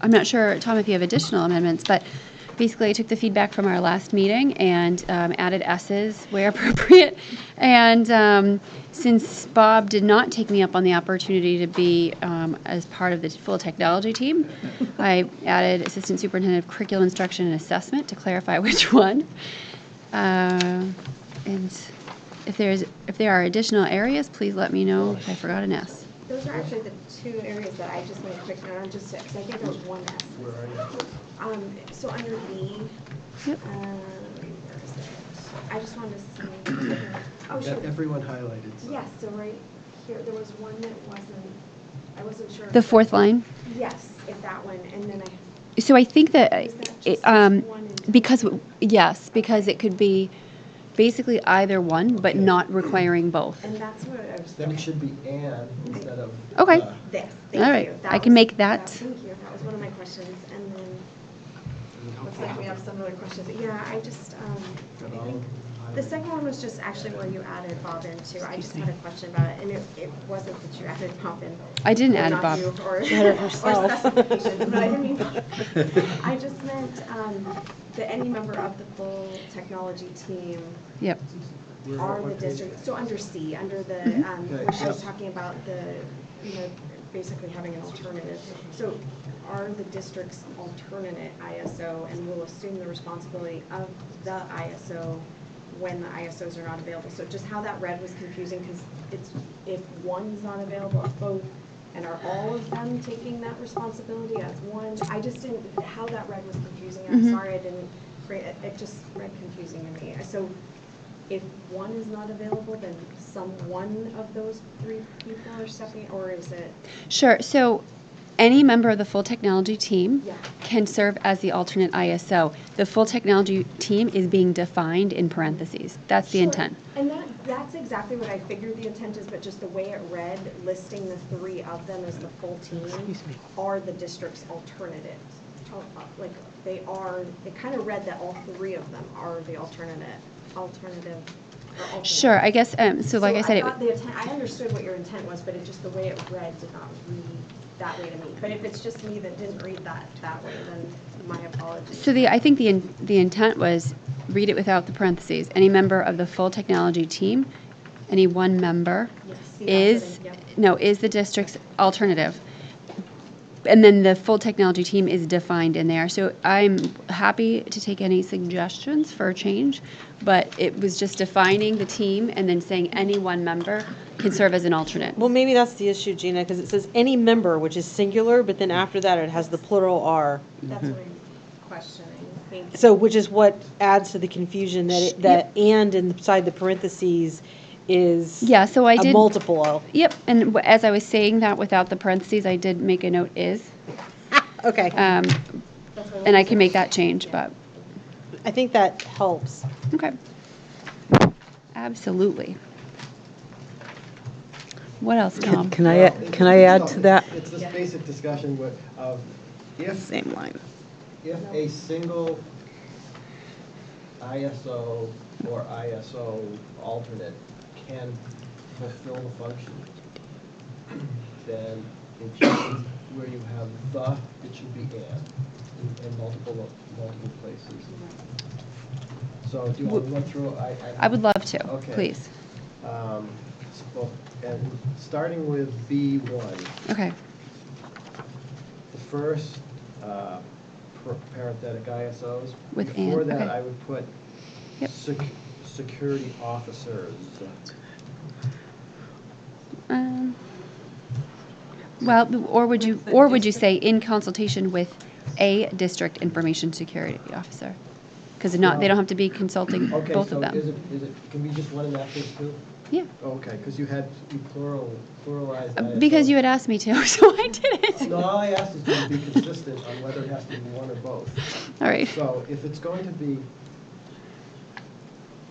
I'm not sure, Tom, if you have additional amendments, but basically I took the feedback from our last meeting and um, added S's where appropriate. And um, since Bob did not take me up on the opportunity to be um, as part of the full technology team, I added Assistant Superintendent of Curriculum Instruction and Assessment to clarify which one. Uh, And if there's, if there are additional areas, please let me know if I forgot an S. Those are actually the two areas that I just made a quick note on, just because I think there was one S. Where are you? Um, so under B, um, Yep. where is it? I just wanted to see. Oh, Got sure. Everyone highlighted. Yes, so right here, there was one that wasn't, I wasn't sure. The fourth line. Yes, if that one, and then I, So I think that, Is that it, just um, one and two? because, yes, because it could be basically either one, but not requiring both. and that's what I was. Then it should be and instead of. uh, Okay. the. This, All thank right, you. I That can was- make that. Thank you, that was one of my questions, and then, looks like we have some other questions. Yeah, I just, um, I Oh. think The second one was just actually where you added Bob in too. I just had a question about it, and it, it wasn't that you added Bob in. I didn't add Not Bob. you, Or or herself. specifications, but I didn't mean, I just meant, um, that any member of the full technology team Yep. Where- are what the page? district, so under C, under the, um, Okay, where she was yeah. talking about the, you know, basically having an alternative. So are the district's alternate ISO and will assume the responsibility of the ISO when the ISOs are not available? So just how that read was confusing because it's, if one's not available, if both, and are all of them taking that responsibility as one? I just didn't, how that read was confusing. I'm Mhm. sorry I didn't, create- it it just read confusing to me. So if one is not available, then some one of those three people are stepping, or is it, Sure, so any member of the full technology team Yeah. can serve as the alternate ISO. The full technology team is being defined in parentheses. That's the Sure. intent. And that, that's exactly what I figured the intent is, but just the way it read, listing the three of them as the full team are the district's alternative. Al- uh, Like, they are, it kind of read that all three of them are the alternate, alternative. or alternate. Sure, I guess, um, so like I said, thought it- the intent- I understood what your intent was, but it just, the way it read did not read that way to me. But if it's just me that didn't read that that way, then my apologies. so the, I think the, in- the intent was read it without the parentheses. Any member of the full technology team, any one member Yes, see, that's what I- is, yep. no, is the district's alternative. And then the full technology team is defined in there. So I'm happy to take any suggestions for a change, but it was just defining the team and then saying any one member can serve as an alternate. Well, maybe that's the issue, Gina, because it says any member, which is singular, but then after that, it has the plural R. That's what I'm questioning. Thank you. So, which is what adds to the confusion that, it- that and inside the parentheses is. Yeah, so I did- A multiple of. Yep, and w- as I was saying that without the parentheses, I did make a note is, Okay, um, That's what and I can make that change, but, I think that helps. okay. Absolutely. What else, Tom? Can I, Well, can I add to that? It's this basic discussion where, of if, Same line. if a single ISO or ISO alternate can fulfill the function, then it should be where you have the, it should be and in, in multiple, multiple places. So do you want to run through? I, I would love to, Okay. please. Um, s- well, And starting with B1, Okay, the first uh, par- parenthetic ISOs. With Before and, that, okay. I would put Yep. sec- security officers. Um, Well, or would you, or would you say in consultation with a district information security officer? Because not, they don't have to be consulting Okay, both so of is it, them. is it, can we just one in that case too? Yeah, Okay, because you had, you plural, pluralized Uh, because you ISOs. had asked me to, so I did it. No, all I asked is to be consistent on whether it has to be one or both. All right, So if it's going to be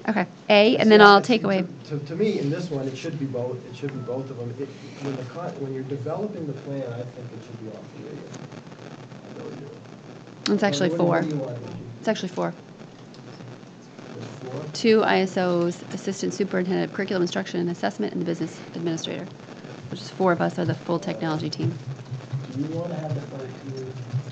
okay. A, and See, then I'll it's- take away, To, to me, in this one, it should be both, it should be both of them. It- When the, con- when you're developing the plan, I think it should be all three of them. I really do. it's actually What do you- four. What do you want? It's actually four. There's four? Two ISOs, Assistant Superintendent of Curriculum Instruction and Assessment, and the Business Administrator, which is four of us are the full technology team. Do you want to have the, fir- do you-